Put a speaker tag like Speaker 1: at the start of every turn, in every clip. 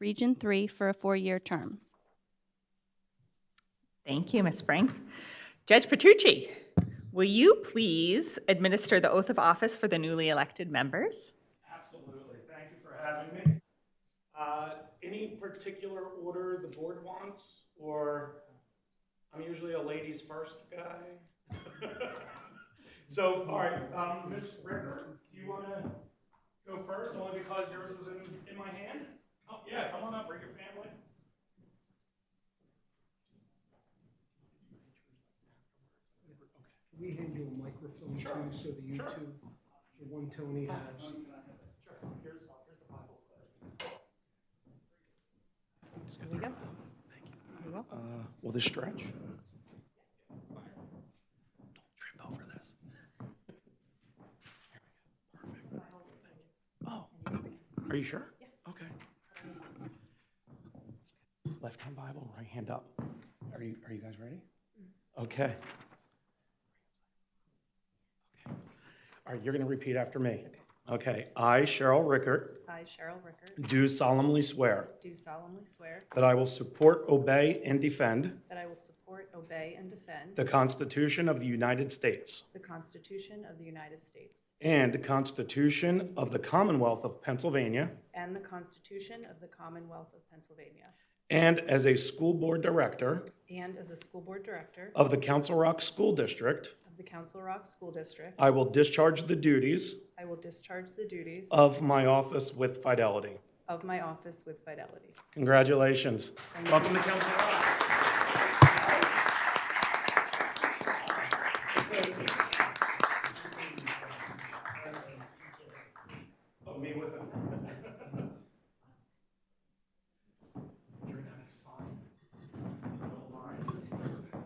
Speaker 1: Region 3, for a four-year term.
Speaker 2: Thank you, Ms. Frank. Judge Petrucci, will you please administer the oath of office for the newly elected members?
Speaker 3: Absolutely. Thank you for having me. Uh, Any particular order the board wants, or I'm usually a ladies first guy? So, all right, um, Ms. Ricker, do you want to go first, only because yours is in, in my hand? Oh, yeah, come on up, bring your family.
Speaker 4: Can we hand you a microphone too, so the
Speaker 3: sure.
Speaker 4: YouTube, the one Tony has?
Speaker 3: Sure, here's, here's the Bible.
Speaker 5: Will this stretch? Are you sure? Okay. Left hand Bible, right hand up. Are you, are you guys ready? Okay. All right, you're going to repeat after me. Okay, uh, I, Cheryl Rickert,
Speaker 6: I, Cheryl Rickert,
Speaker 5: do solemnly swear
Speaker 6: do solemnly swear
Speaker 5: that I will support, obey, and defend
Speaker 6: that I will support, obey, and defend
Speaker 5: the Constitution of the United States
Speaker 6: the Constitution of the United States
Speaker 5: and the Constitution of the Commonwealth of Pennsylvania,
Speaker 6: and the Constitution of the Commonwealth of Pennsylvania,
Speaker 5: and as a school board director
Speaker 6: and as a school board director
Speaker 5: of the Council Rock School District,
Speaker 6: of the Council Rock School District,
Speaker 5: I will discharge the duties
Speaker 6: I will discharge the duties
Speaker 5: of my office with fidelity.
Speaker 6: of my office with fidelity.
Speaker 5: Congratulations. Welcome to Council Rock.
Speaker 3: Oh, me with him. You're gonna have to sign. a little line.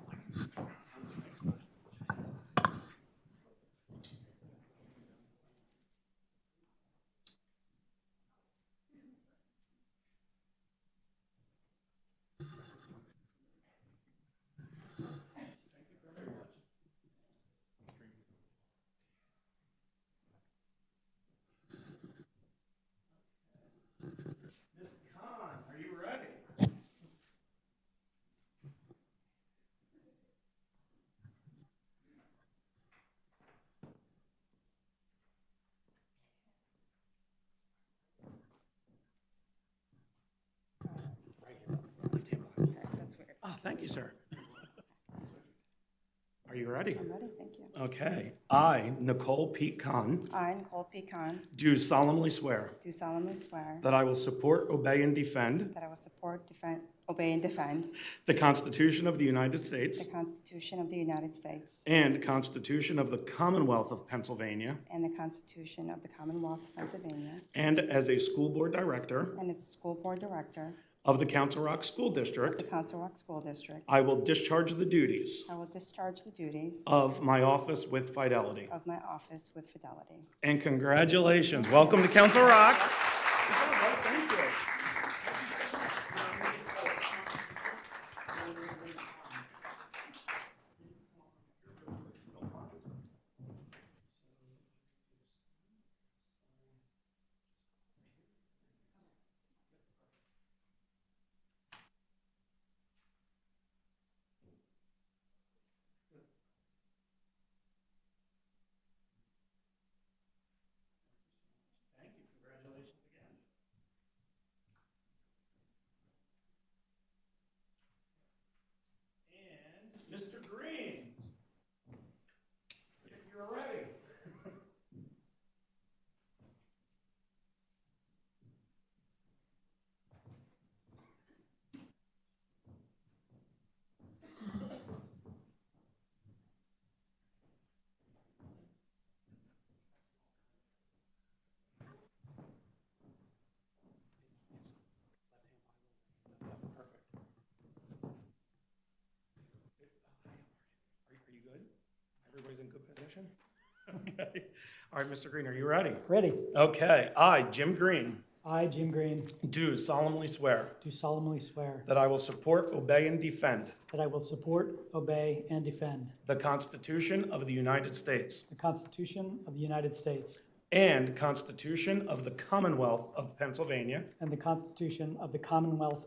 Speaker 3: Miss Khan, are you ready?
Speaker 5: Oh, thank you, sir. Are you ready? I'm ready, thank you. Okay. I, Nicole Pete Khan,
Speaker 7: I, Nicole Pecan,
Speaker 5: do solemnly swear
Speaker 7: do solemnly swear
Speaker 5: that I will support, obey, and defend
Speaker 7: that I will support, defend, obey, and defend
Speaker 5: the Constitution of the United
Speaker 7: the
Speaker 5: States
Speaker 7: Constitution of the United States
Speaker 5: and Constitution of the Commonwealth of Pennsylvania,
Speaker 7: and the Constitution of the Commonwealth of Pennsylvania,
Speaker 5: and as a school board director
Speaker 7: and as a school board director
Speaker 5: of the Council Rock School
Speaker 7: of
Speaker 5: District,
Speaker 7: the Council Rock School District,
Speaker 5: I will discharge the duties
Speaker 7: I will discharge the duties
Speaker 5: of my office with fidelity.
Speaker 7: of my office with fidelity.
Speaker 5: And congratulations. Welcome to Council Rock.
Speaker 3: Thank you, congratulations again. And Mr. Green, if you're ready.
Speaker 5: Are are you good? Everybody's in good position? Okay. All right, Mr. Green, are you ready?
Speaker 8: Ready.
Speaker 5: Okay. I, Jim Green,
Speaker 8: I, Jim Green,
Speaker 5: do solemnly swear
Speaker 8: do solemnly swear
Speaker 5: that I will support, obey, and defend
Speaker 8: that I will support, obey, and defend
Speaker 5: the Constitution of the United States
Speaker 8: the Constitution of the United States
Speaker 5: and Constitution of the Commonwealth of Pennsylvania
Speaker 8: and the Constitution of the Commonwealth